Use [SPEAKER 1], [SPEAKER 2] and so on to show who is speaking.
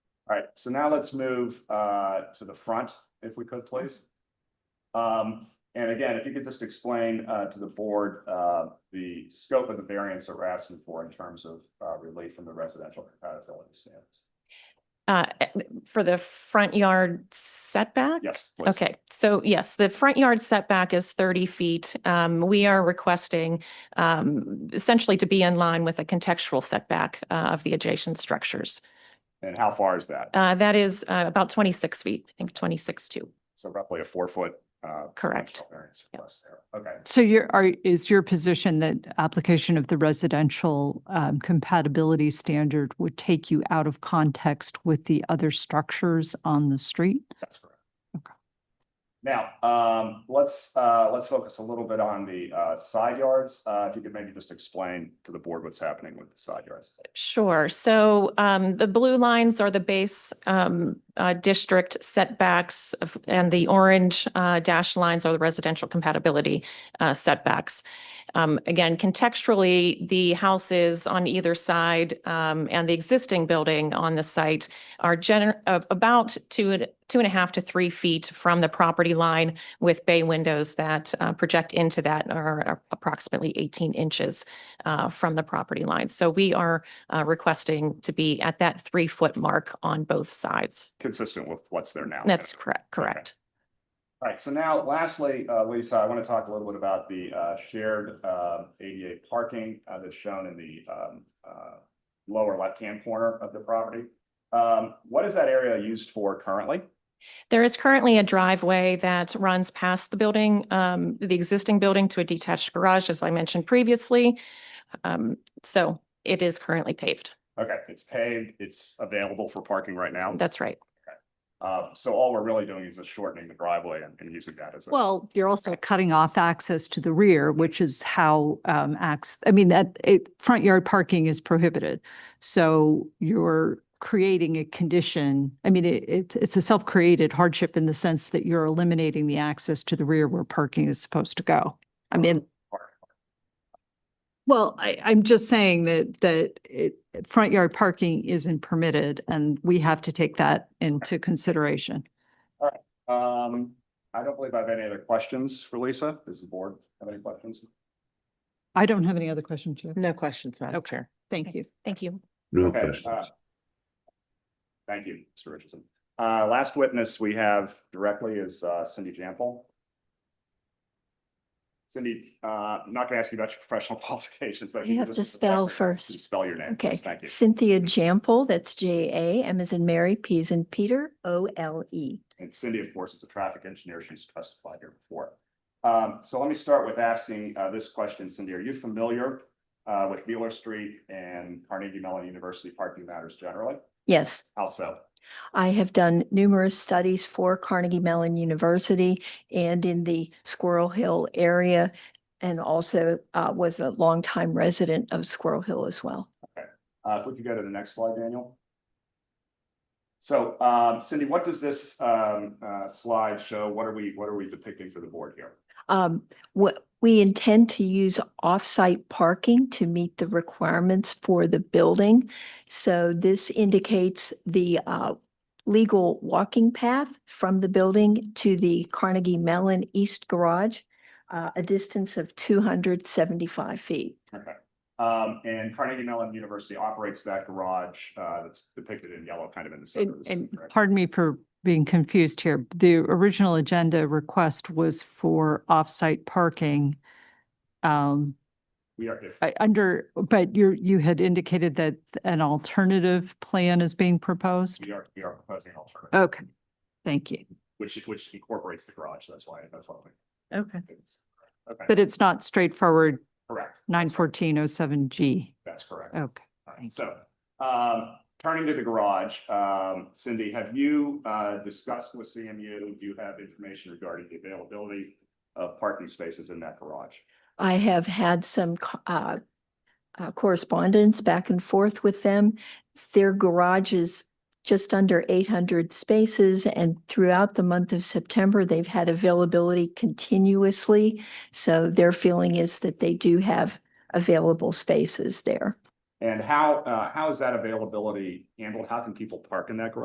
[SPEAKER 1] All right, so now let's move uh to the front, if we could, please. Um, and again, if you could just explain uh to the board uh the scope of the variance that we're asking for in terms of uh relief from the residential compatibility standards.
[SPEAKER 2] Uh, for the front yard setback?
[SPEAKER 1] Yes. please.
[SPEAKER 2] Okay, so yes, the front yard setback is thirty feet. Um, we are requesting um, essentially to be in line with a contextual setback uh, of the adjacent structures.
[SPEAKER 1] And how far is that?
[SPEAKER 2] Uh, that is uh, about twenty-six feet, I think twenty-six two,
[SPEAKER 1] So roughly a four foot uh.
[SPEAKER 2] correct?
[SPEAKER 1] dimensional Variance
[SPEAKER 2] Yep.
[SPEAKER 1] request there. Okay,
[SPEAKER 3] So your, are, is your position that application of the residential um, compatibility standard would take you out of context with the other structures on the street?
[SPEAKER 1] that's correct.
[SPEAKER 3] Okay.
[SPEAKER 1] Now, um, let's uh let's focus a little bit on the uh side yards. Uh, if you could maybe just explain to the board what's happening with the side yards.
[SPEAKER 2] Sure. So um, the blue lines are the base um, uh, district setbacks, of- and the orange uh, dash lines are the residential compatibility uh, setbacks. Um, Again, contextually, the houses on either side um, and the existing building on the site are gener- of about two, and- two and a half to three feet from the property line with bay windows that uh, project into that are approximately 18 inches uh, from the property line. So we are uh, requesting to be at that three-foot mark on both sides.
[SPEAKER 1] consistent with what's there now.
[SPEAKER 2] That's correct, correct.
[SPEAKER 1] All right, so now lastly, uh, Lisa, I want to talk a little bit about the, uh, shared, uh, ADA parking, uh, that's shown in the, um, uh, lower left-hand corner of the property. Um, what is that area used for currently?
[SPEAKER 2] There is currently a driveway that runs past the building, um, the existing building to a detached garage, as I mentioned previously. Um, So it is currently paved.
[SPEAKER 1] Okay, it's paved, it's available for parking right now.
[SPEAKER 2] That's right.
[SPEAKER 1] Uh, so all we're really doing is just shortening the driveway and, and using that as a.
[SPEAKER 3] Well, you're also cutting off access to the rear, which is how um, acts, I mean, that, it, front yard parking is prohibited. So you're creating a condition, I mean, it, it's- it's a self-created hardship in the sense that you're eliminating the access to the rear where parking is supposed to go. I mean, well, I, I'm just saying that, that it, front yard parking isn't permitted and we have to take that into consideration.
[SPEAKER 1] Um, I don't believe I have any other questions for Lisa. Does the board have any questions?
[SPEAKER 3] I don't have any other questions, Jeff.
[SPEAKER 4] No questions, Madam
[SPEAKER 3] Okay.
[SPEAKER 4] Chair.
[SPEAKER 3] Thank you.
[SPEAKER 2] Thank you.
[SPEAKER 5] No
[SPEAKER 1] Okay, uh,
[SPEAKER 5] questions.
[SPEAKER 1] Thank you, Mr. Richardson. Uh, last witness we have directly is uh, Cindy Jample. Cindy, uh, I'm not gonna ask you about your professional qualifications, but. if
[SPEAKER 6] You
[SPEAKER 1] could
[SPEAKER 6] have
[SPEAKER 1] just
[SPEAKER 6] to spell
[SPEAKER 1] respect-
[SPEAKER 6] first.
[SPEAKER 1] Spell your name.
[SPEAKER 6] Okay,
[SPEAKER 1] please. Thank you.
[SPEAKER 6] Cynthia Jample, that's J A, M is in Mary, P is in Peter, O L E.
[SPEAKER 1] And Cindy, of course, is a traffic engineer. She's testified here before. Um, so let me start with asking, uh, this question, Cindy, are you familiar, uh, with Mueller Street and Carnegie Mellon University parking matters generally?
[SPEAKER 6] Yes,
[SPEAKER 1] How so?
[SPEAKER 6] I have done numerous studies for Carnegie Mellon University and in the Squirrel Hill area. And also uh, was a longtime resident of Squirrel Hill as well.
[SPEAKER 1] Uh, if we could go to the next slide, Daniel. So, um, Cindy, what does this, um, uh, slide show? What are we, what are we depicting for the board here?
[SPEAKER 6] Um, what, we intend to use off-site parking to meet the requirements for the building. So this indicates the, uh, legal walking path from the building to the Carnegie Mellon East Garage, uh, a distance of two hundred seventy-five feet.
[SPEAKER 1] Okay. Um, and Carnegie Mellon University operates that garage, uh, that's depicted in yellow, kind of in the center. of
[SPEAKER 3] And,
[SPEAKER 1] the
[SPEAKER 3] and
[SPEAKER 1] screen, correct?
[SPEAKER 3] pardon me for being confused here. The original agenda request was for off-site parking. Um,
[SPEAKER 1] We are, if,
[SPEAKER 3] I, under, but you, you had indicated that an alternative plan is being proposed?
[SPEAKER 1] we are, we are proposing an alternative,
[SPEAKER 3] Okay, thank you.
[SPEAKER 1] which, which incorporates the garage. That's why, that's why. we-
[SPEAKER 3] Okay.
[SPEAKER 1] Okay,
[SPEAKER 3] But it's not straightforward
[SPEAKER 1] correct.
[SPEAKER 3] nine fourteen oh seven G.
[SPEAKER 1] That's correct.
[SPEAKER 3] Okay.
[SPEAKER 1] All right,
[SPEAKER 3] Thank
[SPEAKER 1] So, um, turning to the garage, um, Cindy, have you, uh, discussed with CMU, do you have information regarding the availability of parking spaces in that garage?
[SPEAKER 6] I have had some co- uh, uh, correspondence back and forth with them. Their garage is just under eight hundred spaces and throughout the month of September, they've had availability continuously. So their feeling is that they do have available spaces there.
[SPEAKER 1] And how, uh, how is that availability handled? How can people park in that garage?